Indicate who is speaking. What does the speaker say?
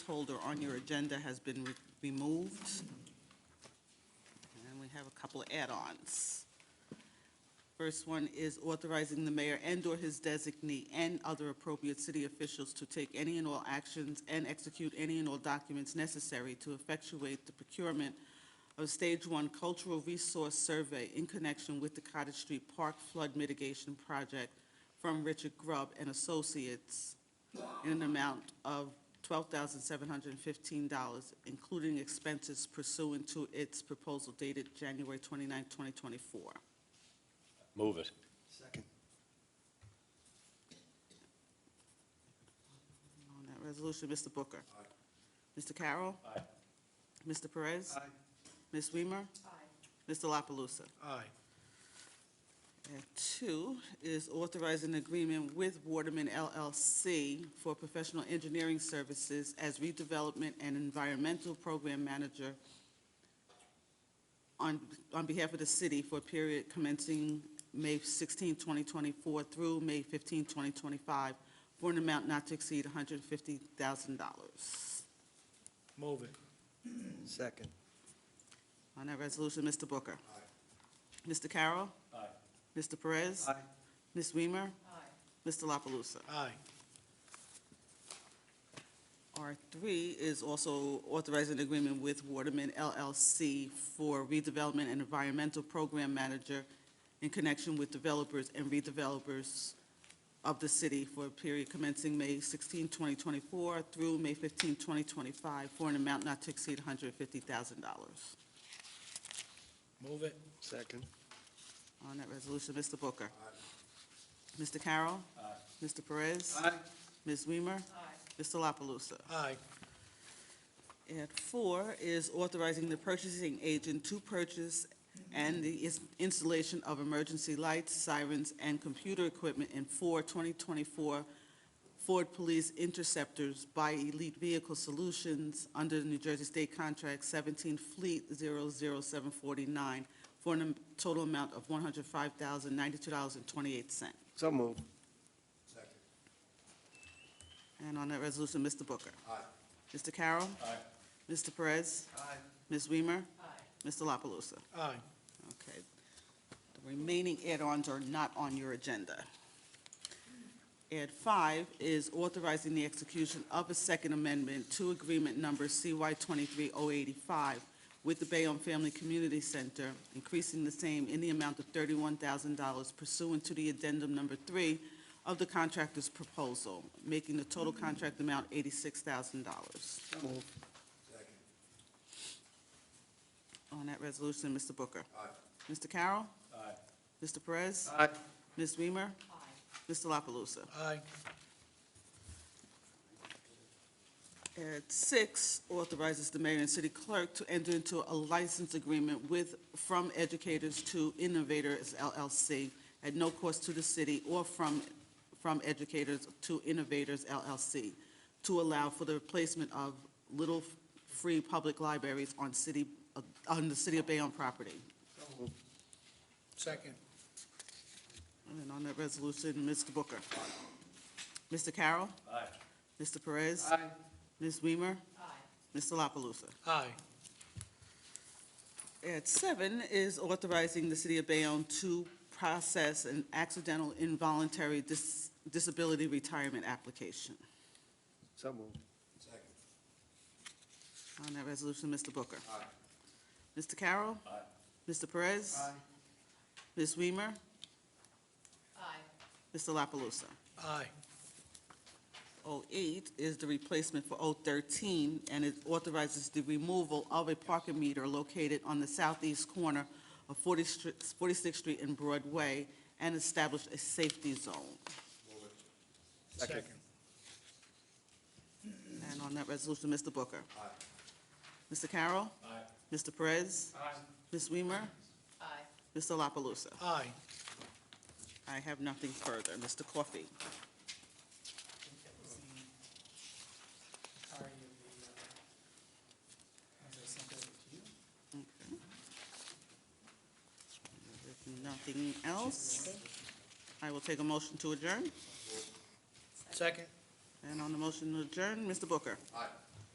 Speaker 1: holder on your agenda has been re- removed. And we have a couple of add-ons. First one is authorizing the mayor and/or his designee and other appropriate city officials to take any and all actions and execute any and all documents necessary to effectuate the procurement of Stage One Cultural Resource Survey in connection with the Cottage Street Park Flood Mitigation Project from Richard Grubb and Associates in an amount of $12,715, including expenses pursuant to its proposal dated January 29, 2024.
Speaker 2: Move it.
Speaker 3: Second.
Speaker 1: On that resolution, Mr. Booker. Mr. Carroll. Aye. Mr. Perez.
Speaker 3: Aye.
Speaker 1: Ms. Weimer. Aye. Mr. La Palusa.
Speaker 3: Aye.
Speaker 1: And two is authorizing agreement with Waterman LLC for professional engineering services as redevelopment and environmental program manager on, on behalf of the city for a period commencing May 16, 2024 through May 15, 2025, for an amount not to exceed $150,000.
Speaker 3: Move it. Second.
Speaker 1: On that resolution, Mr. Booker. Mr. Carroll.
Speaker 2: Aye.
Speaker 1: Mr. Perez.
Speaker 3: Aye.
Speaker 1: Ms. Weimer. Mr. La Palusa.
Speaker 3: Aye.
Speaker 1: R3 is also authorizing an agreement with Waterman LLC for redevelopment and environmental program manager in connection with developers and redevelopers of the city for a period commencing May 16, 2024 through May 15, 2025, for an amount not to exceed $150,000.
Speaker 3: Move it. Second.
Speaker 1: On that resolution, Mr. Booker. Mr. Carroll. Mr. Perez. Ms. Weimer. Mr. La Palusa.
Speaker 3: Aye.
Speaker 1: And four is authorizing the purchasing agent to purchase and the is- installation of emergency lights, sirens, and computer equipment in four 2024 Ford Police Interceptors by Elite Vehicle Solutions under the New Jersey State Contract 17 Fleet 00749 for a total amount of $105,092.28.
Speaker 3: So move.
Speaker 1: And on that resolution, Mr. Booker. Aye. Mr. Carroll. Aye. Mr. Perez.
Speaker 3: Aye.
Speaker 1: Ms. Weimer? Mr. La Palusa?
Speaker 3: Aye.
Speaker 1: Okay. The remaining add-ons are not on your agenda. Add five is authorizing the execution of a second amendment to agreement number CY 23085 with the Bayonne Family Community Center, increasing the same in the amount of $31,000 pursuant to the addendum number three of the contractor's proposal, making the total contract amount $86,000.
Speaker 3: So move.
Speaker 1: On that resolution, Mr. Booker. Aye. Mr. Carroll. Aye. Mr. Perez.
Speaker 3: Aye.
Speaker 1: Ms. Weimer. Aye. Mr. La Palusa.
Speaker 3: Aye.
Speaker 1: And six authorizes the mayor and city clerk to enter into a license agreement with From Educators to Innovators LLC at no cost to the city or from, from Educators to Innovators LLC to allow for the replacement of little free public libraries on city, on the city of Bayonne property.
Speaker 3: Second.
Speaker 1: And on that resolution, Mr. Booker. Mr. Carroll.
Speaker 2: Aye.
Speaker 1: Mr. Perez.
Speaker 3: Aye.
Speaker 1: Ms. Weimer. Aye. Mr. La Palusa.
Speaker 3: Aye.
Speaker 1: At seven is authorizing the City of Bayonne to process an accidental involuntary dis- disability retirement application.
Speaker 3: So move.
Speaker 1: On that resolution, Mr. Booker. Aye. Mr. Carroll. Aye. Mr. Perez.
Speaker 3: Aye.
Speaker 1: Ms. Weimer. Aye. Mr. La Palusa.
Speaker 3: Aye.
Speaker 1: 08 is the replacement for 013, and it authorizes the removal of a parking meter located on the southeast corner of 40 Str- 46th Street and Broadway, and establish a safety zone.
Speaker 3: Second.
Speaker 1: And on that resolution, Mr. Booker. Aye. Mr. Carroll. Aye. Mr. Perez.
Speaker 3: Aye.
Speaker 1: Ms. Weimer. Aye. Mr. La Palusa.
Speaker 3: Aye.
Speaker 1: I have nothing further. Mr. Coffey.
Speaker 4: Sorry, the, uh, as I sent over to you.
Speaker 1: If Nothing else? I will take a motion to adjourn.
Speaker 3: Second.
Speaker 1: And on the motion to adjourn, Mr. Booker.
Speaker 3: Aye.